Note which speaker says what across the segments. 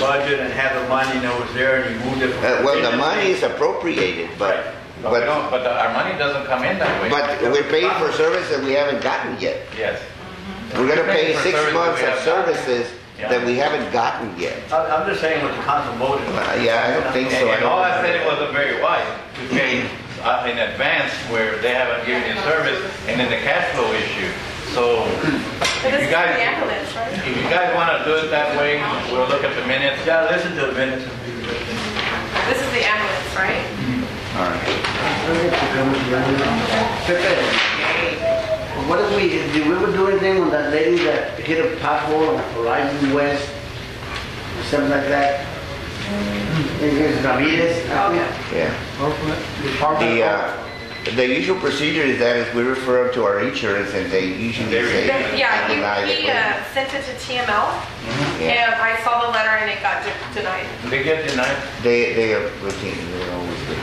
Speaker 1: budget and have the money and it was there and you moved it. from
Speaker 2: Uh, well, the
Speaker 1: contingency.
Speaker 2: money is appropriated, but,
Speaker 1: Right.
Speaker 3: But we
Speaker 2: but,
Speaker 3: don't, but the- our money doesn't come in that way.
Speaker 2: but we're paying for service that we haven't gotten yet.
Speaker 3: Yes.
Speaker 2: We're gonna pay
Speaker 3: Paying for
Speaker 2: six
Speaker 3: service that
Speaker 2: months
Speaker 3: we
Speaker 2: of
Speaker 3: have gotten.
Speaker 2: services
Speaker 3: Yeah.
Speaker 2: that we haven't gotten yet.
Speaker 1: I'm I'm just saying what the council voted.
Speaker 2: Uh, yeah, I don't think so.
Speaker 3: And and all I
Speaker 2: don't-
Speaker 3: said it wasn't very wise to pay uh, in advance where they haven't given you service, and then the cash flow issue. So
Speaker 4: But
Speaker 3: if
Speaker 4: this
Speaker 3: you
Speaker 4: is for the
Speaker 3: guys,
Speaker 4: ambulance, right?
Speaker 3: if you guys want to do it that way, we'll look at the minutes.
Speaker 1: Yeah, listen to the minutes. and be with it.
Speaker 4: This is the ambulance, right?
Speaker 2: All right.
Speaker 5: Pepe, what if we, did we ever do anything on that lady that hit a pothole on Horizon West? or Something like that? It's Ramirez, I think.
Speaker 2: Yeah.
Speaker 4: Okay.
Speaker 2: The, uh, the usual procedure is that is we refer them to our insurance and they usually
Speaker 3: They
Speaker 2: say.
Speaker 4: Then- Yeah,
Speaker 2: deny
Speaker 4: he,
Speaker 2: the
Speaker 4: he
Speaker 2: claim.
Speaker 4: uh, sent it to TML,
Speaker 3: Mm-hmm.
Speaker 2: Yeah.
Speaker 4: and I saw the letter and it got de- denied.
Speaker 3: They get denied.
Speaker 4: uh,
Speaker 2: They, they are routine, they always do.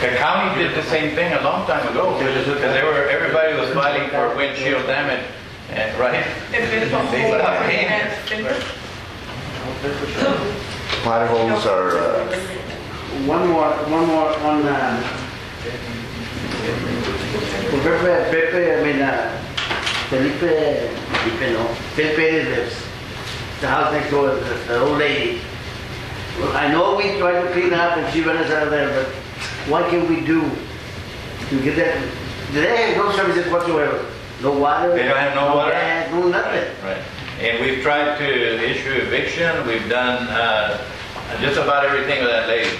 Speaker 3: The county did the same thing a long time ago, because they were, everybody was fighting for windshield damage, and- right?
Speaker 4: It's been the whole,
Speaker 3: They stopped paying
Speaker 4: and
Speaker 3: it.
Speaker 4: it's been, the
Speaker 2: Potholes are, uh,
Speaker 5: One more, one more on, uh, for Pepe, Pepe, I mean, uh, Felipe, Felipe, no, Pepe lives, the house next door, the, the old lady. Well, I know we tried to clean up and she ran us out of there, but what can we do to get that, they have no services whatsoever, no water.
Speaker 3: They don't have no water?
Speaker 5: gas, No nothing.
Speaker 3: Right. And we've tried to issue eviction, we've done uh, just about everything with that lady.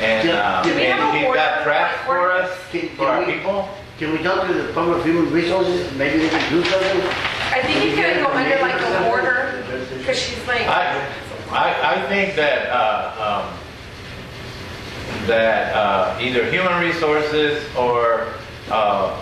Speaker 3: And uh,
Speaker 5: Yeah.
Speaker 4: We have
Speaker 3: and
Speaker 4: a
Speaker 3: she's
Speaker 4: board-
Speaker 3: got traps for us,
Speaker 5: Can-
Speaker 3: for our
Speaker 5: can we-
Speaker 3: people.
Speaker 5: Can we talk to the Department of Human Resources, maybe they can do something?
Speaker 4: I think you could go under like a order, because she's like,
Speaker 3: I, I, I think that, uh, um, that, uh, either human resources or, uh,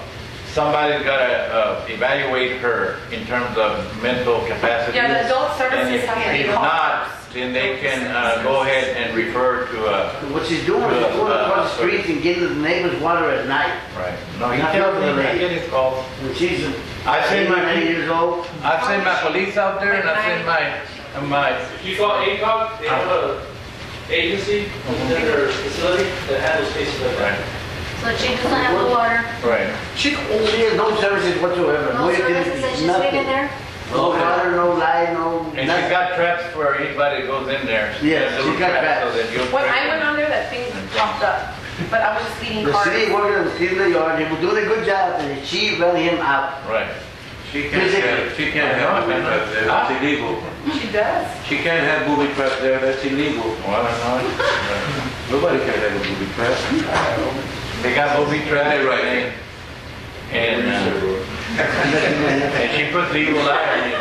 Speaker 3: somebody's gotta, uh, evaluate her in terms of mental capacity.
Speaker 4: Yeah, the adult services
Speaker 3: And if-
Speaker 4: have to be
Speaker 3: If
Speaker 4: called
Speaker 3: not,
Speaker 4: first.
Speaker 3: then they can, uh, go ahead and refer to, uh,
Speaker 5: What she's doing, she's going across the streets and getting the neighbors water at night.
Speaker 3: right. No, he
Speaker 5: Not
Speaker 3: tells me,
Speaker 5: the
Speaker 3: I
Speaker 5: lady.
Speaker 3: get his calls.
Speaker 5: And she's
Speaker 3: I send my,
Speaker 5: 89 years old.
Speaker 3: I send my police out there and I send my, my,
Speaker 6: You call ACOG, they have a agency within their facility that handles cases like that.
Speaker 3: right,
Speaker 7: So she doesn't have the water,
Speaker 3: right.
Speaker 5: She, she has no services whatsoever.
Speaker 7: no services
Speaker 5: utilities,
Speaker 7: that she's
Speaker 5: nothing.
Speaker 7: leaving there?
Speaker 5: No water, no light, no
Speaker 3: And she's
Speaker 5: nothing.
Speaker 3: got traps for anybody that goes in there.
Speaker 5: Yes,
Speaker 3: Little
Speaker 5: she's got traps.
Speaker 3: So that you'll.
Speaker 4: when I went on there, that thing popped up, but I was just leading
Speaker 5: The city
Speaker 4: cards.
Speaker 5: worker was in the yard, he was doing a good job, and she ran him out.
Speaker 3: Right.
Speaker 5: Is
Speaker 8: She can't
Speaker 5: it-
Speaker 8: have, she can't
Speaker 3: I
Speaker 8: have
Speaker 3: know, I
Speaker 8: booby
Speaker 3: know.
Speaker 8: traps there,
Speaker 3: Huh?
Speaker 8: that's illegal.
Speaker 4: She does.
Speaker 8: She can't have booby traps there, that's illegal.
Speaker 3: Well, I don't know.
Speaker 8: Nobody can have a booby trap.
Speaker 3: They got booby traps.
Speaker 8: They're right.
Speaker 3: and- And, uh, and she put the evil eye on you.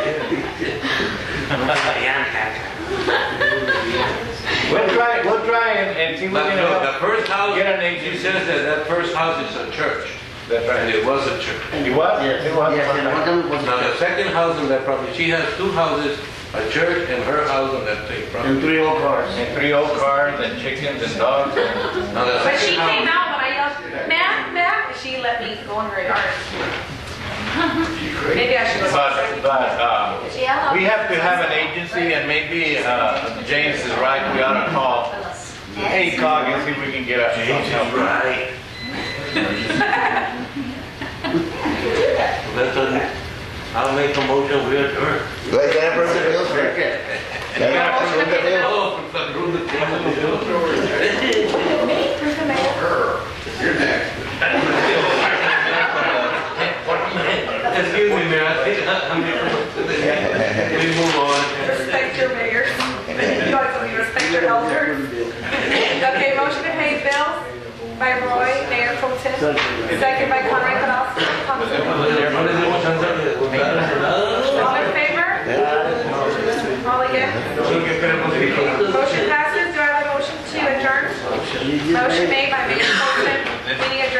Speaker 3: We'll try, we'll try and, and see
Speaker 8: But
Speaker 3: what we can
Speaker 8: no, the
Speaker 3: help.
Speaker 8: first house,
Speaker 3: Get an agent.
Speaker 8: she says that that first house is a church,
Speaker 3: That's
Speaker 8: and
Speaker 3: right.
Speaker 8: it was a church.
Speaker 3: You what? You what?
Speaker 5: Yes, and one time it
Speaker 8: Now, the
Speaker 5: was,
Speaker 8: second house on that property, she has two houses, a church and her house on that same
Speaker 5: and
Speaker 8: property.
Speaker 5: three old cars.
Speaker 3: And three old cars and chickens and dogs. and-
Speaker 8: Now, the
Speaker 4: But she came
Speaker 8: second house,
Speaker 4: out when I yelled, ma'am, ma'am, and she let me go in her yard. Maybe I should go.
Speaker 3: But, but, uh,
Speaker 7: Yeah.
Speaker 3: We have to have an agency, and maybe uh, James is right, we ought to call ACOG and see if we can get a James
Speaker 8: right. That's a, I'll make a motion, we adjourn.
Speaker 2: Like that person feels like it. That person feels-
Speaker 8: Oh, from the room that came with the bill.
Speaker 4: Where's the mayor?
Speaker 8: Excuse me, Mayor, I think I'm here. We move on.
Speaker 4: Respect your mayor. You guys will be respect your elders. Okay, motion to pay bills by Roy, Mayor Pro Tem. Second by Conrad Canal.
Speaker 8: What is it, what time is it?
Speaker 4: All in favor? All against? Motion passes. Do I have a motion to adjourn? Motion made by Mayor Pro Tem. Meeting adjourned.